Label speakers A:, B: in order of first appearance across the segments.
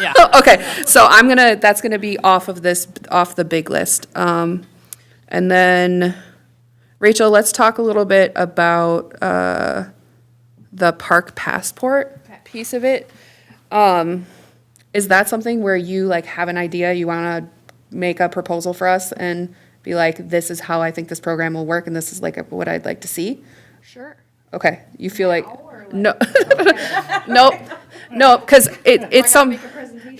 A: Yeah.
B: Okay, so I'm gonna, that's gonna be off of this, off the big list. Um, and then, Rachel, let's talk a little bit about, uh, the park passport piece of it. Um, is that something where you like have an idea, you wanna make a proposal for us and be like, this is how I think this program will work and this is like what I'd like to see?
C: Sure.
B: Okay, you feel like, no, nope, no, because it, it's some,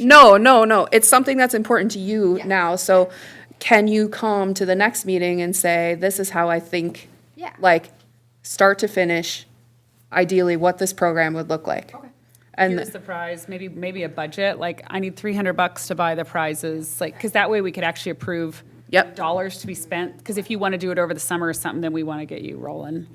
B: no, no, no, it's something that's important to you
C: Yeah.
B: now, so can you come to the next meeting and say, this is how I think,
C: Yeah.
B: like, start to finish, ideally what this program would look like?
C: Okay.
B: And,
A: Here's the prize, maybe, maybe a budget, like, I need three hundred bucks to buy the prizes, like, because that way we could actually approve
B: Yep.
A: dollars to be spent, because if you want to do it over the summer or something, then we want to get you rolling.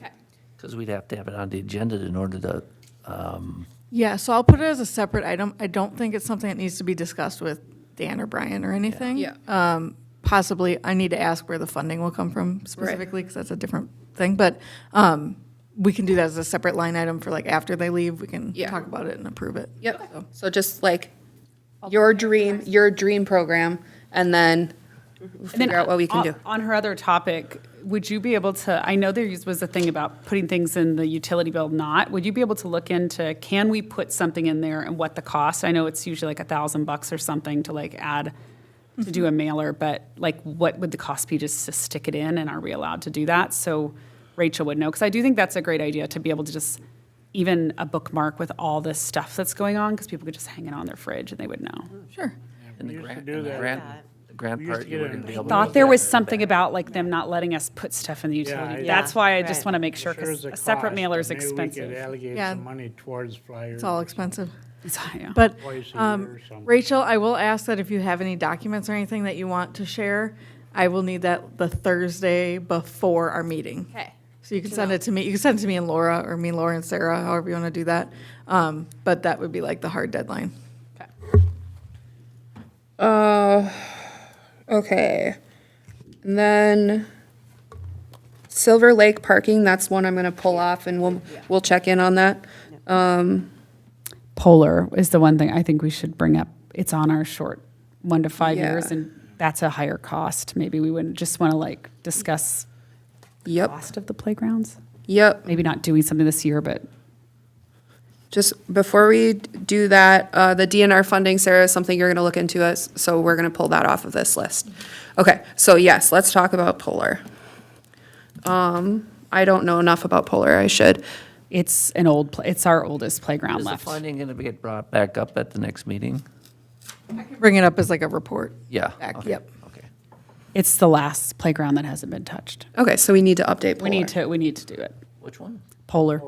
D: Because we'd have to have it on the agenda in order to, um,
E: Yeah, so I'll put it as a separate item. I don't think it's something that needs to be discussed with Dan or Brian or anything.
B: Yeah.
E: Um, Possibly, I need to ask where the funding will come from specifically, because that's a different thing. But um, we can do that as a separate line item for like after they leave, we can
B: Yeah.
E: talk about it and approve it.
B: yep, so just like, your dream, your dream program, and then
A: And then
B: figure out what we can
A: on-
B: do.
A: On her other topic, would you be able to, I know there was a thing about putting things in the utility bill not, would you be able to look into, can we put something in there and what the cost? I know it's usually like a thousand bucks or something to like add, to
B: Mm-hmm.
A: do a mailer, but like what would the cost be just to stick it in and are we allowed to do that? So Rachel would know, because I do think that's a great idea to be able to just, even a bookmark with all this stuff that's going on, because people could just hang it on their fridge and they would know.
E: Sure.
D: in the
F: used to
D: grant,
F: do
D: in the
F: that.
D: grant, the grant
F: We used
D: part,
F: to
D: you
F: get
D: were
F: it
D: going to be
F: in
D: able to.
A: thought there was something about like them not letting us put stuff in the
F: Yeah,
A: utility.
F: I-
A: That's why I just
C: Right.
A: want to make sure,
F: Sure is
A: because
F: a
A: a separate
F: cost,
A: mailer
F: but
A: is
F: Maybe we could
A: expensive.
F: allocate
E: Yeah.
F: some money towards flyers.
E: It's all expensive.
A: So, yeah.
E: But
F: Twice a
E: um,
F: year or something.
E: Rachel, I will ask that if you have any documents or anything that you want to share, I will need that the Thursday before our meeting.
C: Okay.
E: So you can send it to me, you can send it to me and Laura, or me, Laura, and Sarah, however you want to do that. Um, But that would be like the hard deadline.
B: Uh, okay. And then Silver Lake parking, that's one I'm gonna pull off and we'll, we'll check in on that.
A: Polar is the one thing I think we should bring up. It's on our short one to five
B: Yeah.
A: years, and that's a higher cost. Maybe we wouldn't just want to like discuss
B: Yep,
A: cost of the playgrounds.
B: yep.
A: Maybe not doing something this year, but
B: Just before we do that, uh, the DNR funding, Sarah, is something you're gonna look into us, so we're gonna pull that off of this list. Okay, so yes, let's talk about Polar. Um, I don't know enough about Polar, I should.
A: it's an old, pla- it's our oldest playground
D: Is the
A: left.
D: funding going to be get brought back up at the next meeting?
E: Bring it up as like a report.
D: Yeah.
E: Back,
D: okay,
E: yep.
D: Okay.
A: It's the last playground that hasn't been touched.
B: Okay, so we need to update Polar.
A: We need to, we need to do it.
D: Which one?
A: Polar.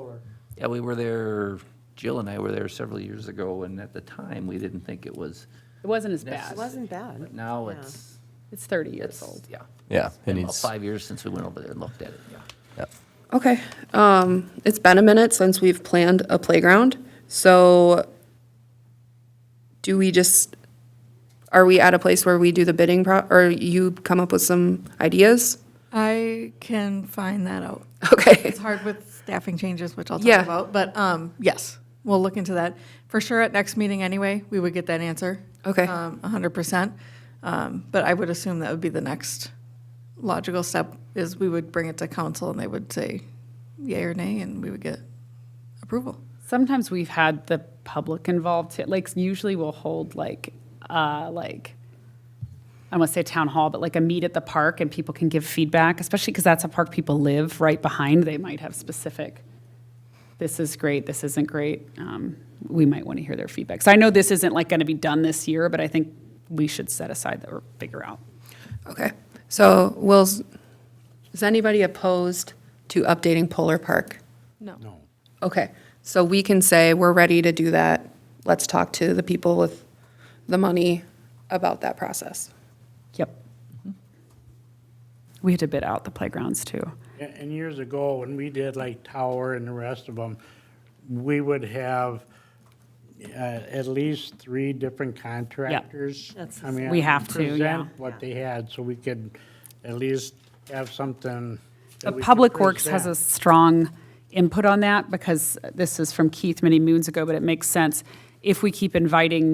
D: Yeah, we were there, Jill and I were there several years ago, and at the time, we didn't think it was,
A: It wasn't as
D: Necessary.
A: bad.
D: It
G: Wasn't bad.
D: but now it's,
A: It's 30 years
D: it's,
A: old.
D: yeah.
H: Yeah,
D: It's
H: it
D: been about
H: needs-
D: Five years since we went over there and looked at it, yeah.
H: Yep.
B: Okay, um, it's been a minute since we've planned a playground, so do we just, are we at a place where we do the bidding pro, or you come up with some ideas?
E: I can find that out.
B: Okay,
E: It's hard with staffing changes, which I'll
B: Yeah.
E: talk about, but um, yes, we'll look into that. For sure, at next meeting anyway, we would get that answer.
B: Okay.
E: Um, A hundred percent. Um, But I would assume that would be the next logical step, is we would bring it to council and they would say yay or nay, and we would get approval.
A: Sometimes we've had the public involved. too. Like usually we'll hold like uh, like I want to say town hall, but like a meet at the park, and people can give feedback, especially because that's a park people live right behind. They might have specific. This is great. This isn't great. Um, we might want to hear their feedback. So I know this isn't like going to be done this year, but I think we should set aside or figure out.
B: okay, so will, s- is anybody opposed to updating Polar Park?
F: No.
B: Okay, so we can say, we're ready to do that, let's talk to the people with the money about that process.
A: Yep. We had to bid out the playgrounds too.
F: A- And years ago, when we did like Tower and the rest of them, we would have uh, at least three different contractors.
G: That's the
F: come in
A: We have
F: and
A: to, yeah.
F: Present what they had, so we could at least have something. that
A: But
F: we could
A: Uh, Public Works has a
F: present.
A: strong input on that because this is from Keith many moons ago, but it makes sense. If we keep inviting